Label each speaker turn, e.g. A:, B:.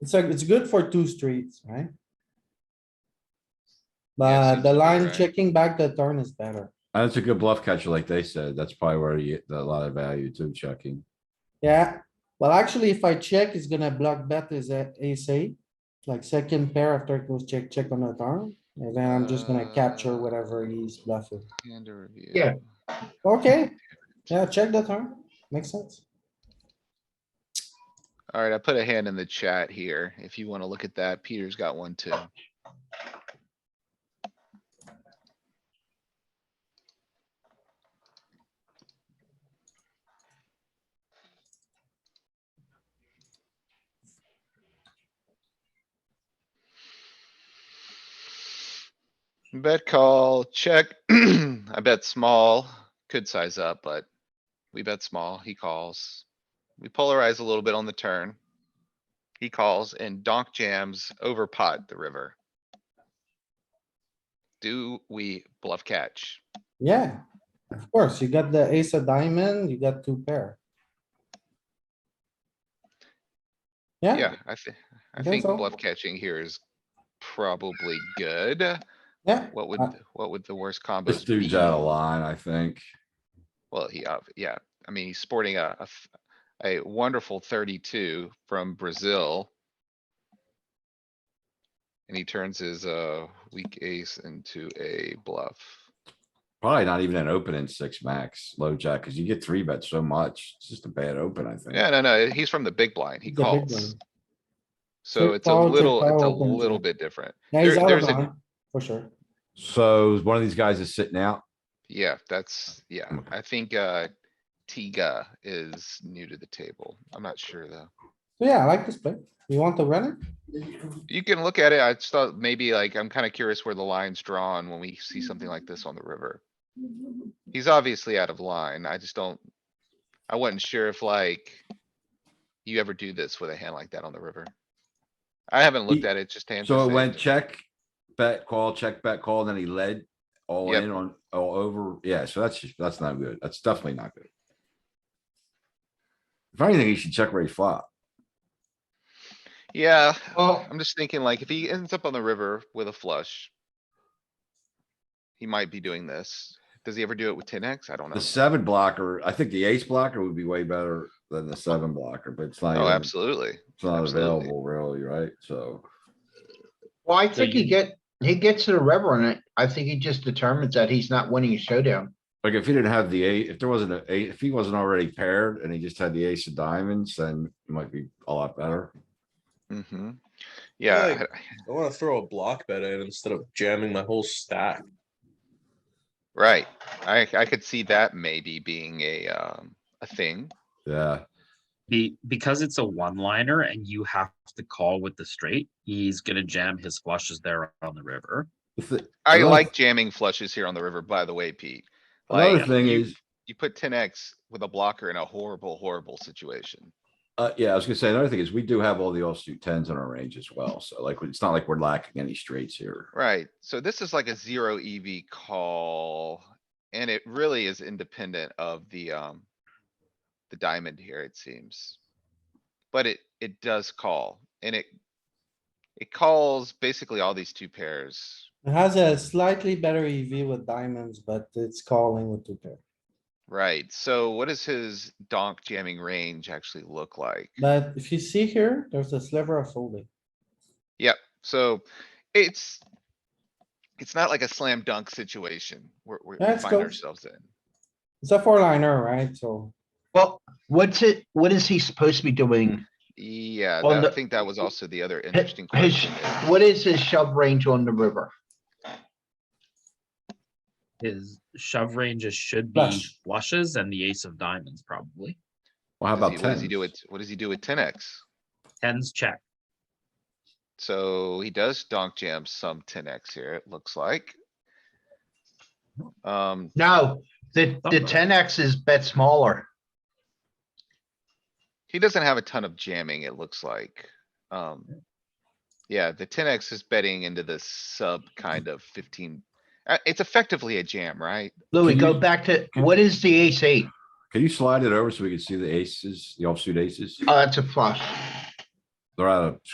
A: It's like, it's good for two streets, right?
B: Yeah,
A: But
B: it seems
A: the
B: to be
A: line
B: right.
A: checking back the turn is better.
C: That's a good bluff catcher, like they said. That's probably where you get a lot of value too, checking.
A: Yeah, well, actually, if I check, it's gonna block bet is a ace eight. Like second pair after it goes check, check on the turn, and then I'm just gonna
B: Uh.
A: capture whatever he's bluffing.
B: And a review.
D: Yeah.
A: Okay, yeah, check the turn. Makes sense.
B: Alright, I put a hand in the chat here. If you wanna look at that, Peter's got one too. Bet call, check. I bet small, could size up, but we bet small, he calls. We polarize a little bit on the turn. He calls and donk jams over pot the river. Do we bluff catch?
A: Yeah, of course, you got the ace of diamond, you got two pair.
B: Yeah, I think, I
A: think
B: think
A: so.
B: bluff catching here is probably good.
A: Yeah,
B: What would,
A: Uh,
B: th- what would the worst combo?
C: This dude's out of line, I think.
B: Well, he, ob- yeah, I mean, he's sporting a, a f- a wonderful thirty-two from Brazil. And he turns his, uh, weak ace into a bluff.
C: Probably not even an open in six max, low jack, cuz you get three bets so much. It's just a bad open, I think.
B: Yeah, no, no, he's from the big blind. He
A: The big
B: calls.
A: blind.
B: So
A: Check
B: it's a
A: call, check
B: little, it's a
A: call, open
B: little
A: check.
B: bit different.
A: yeah, he's
B: There-
A: out of
B: there's a-
A: line, for sure.
C: So one of these guys is sitting out.
B: Yeah, that's, yeah,
C: Okay.
B: I think, uh, Tiga is new to the table. I'm not sure though.
A: So yeah, I like this play. You want to run it?
B: You can look at it. I just thought maybe like, I'm kinda curious where the line's drawn when we see something like this on the river. He's obviously out of line. I just don't, I wasn't sure if like you ever do this with a hand like that on the river. I haven't looked
C: He-
B: at it, just hands.
C: So
B: to
C: it went
B: say.
C: check, bet, call, check, bet, call, and then he led all
B: Yep.
C: in on, all over. Yeah, so that's, just- that's not good. That's definitely not good. If anything, he should check raise flop.
B: Yeah,
D: Well-
B: I'm just thinking like if he ends up on the river with a flush. He might be doing this. Does he ever do it with ten X? I don't know.
C: The seven blocker, I think the ace blocker would be way better than the seven blocker, but it's not,
B: Oh,
C: even-
B: absolutely.
C: it's not
B: absolutely.
C: available really, right? So.
D: Well, I
B: So
D: think he
B: you-
D: get, he gets to the river and I- I think he just determines that he's not winning a showdown.
C: Like if he didn't have the eight, if there wasn't a eight, if he wasn't already paired and he just had the ace of diamonds, then it might be a lot better.
B: hmm Yeah,
E: like- I wanna throw a block bet in instead of jamming my whole stack.
B: right. I, I could see that maybe being a, um, a thing.
C: Yeah,
F: Be, because it's a one liner and you have to call with the straight, he's gonna jam his flushes there on the river.
C: The thi-
B: I
C: Another-
B: like jamming flushes here on the river, by the way, Pete.
C: another
B: Like,
C: thing
B: you-
C: is,
B: You put ten X with a blocker in a horrible, horrible situation.
C: uh, yeah, I was gonna say, another thing is we do have all the offsuit tens in our range as well. So like, it's not like we're lacking any straights here.
B: Right, so this is like a zero EV call, and it really is independent of the, um. The diamond here, it seems. But it, it does call, and it. It calls basically all these two pairs,
A: It has a slightly better EV with diamonds, but it's calling with two pair.
B: right? So what does his donk jamming range actually look like?
A: But if you see here, there's a sliver of folding.
B: Yep, so it's. It's not like a slam dunk situation where we we
A: Let's
B: find
A: go.
B: ourselves in.
A: It's a four liner, right? So
D: Well, what's it, what is he supposed to be doing?
B: Yeah,
D: On
B: that- I
D: the-
B: think that was also the other
D: Hi-
B: interesting
D: His,
B: question. is-
D: what is his shove range on the river?
F: His shove ranges should be
A: Flush.
F: flushes and the ace of diamonds probably.
C: Well, how
B: Does
C: about
B: he- What does he do
C: tens?
B: with, what does he do with ten X?
F: Tens check.
B: So he does donk jam some ten X here, it looks like. Um,
D: No, the, the
F: Something.
D: ten X is bet smaller.
B: he doesn't have a ton of jamming, it looks like. Um, yeah, the ten X is betting into the sub kind of fifteen. Uh, it's effectively a jam, right?
D: Louis,
C: Can
D: go
C: you-
D: back to, what is the ace eight?
C: Can you slide it over so we can see the aces, the offsuit aces?
D: Oh, that's a flush.
C: They're out of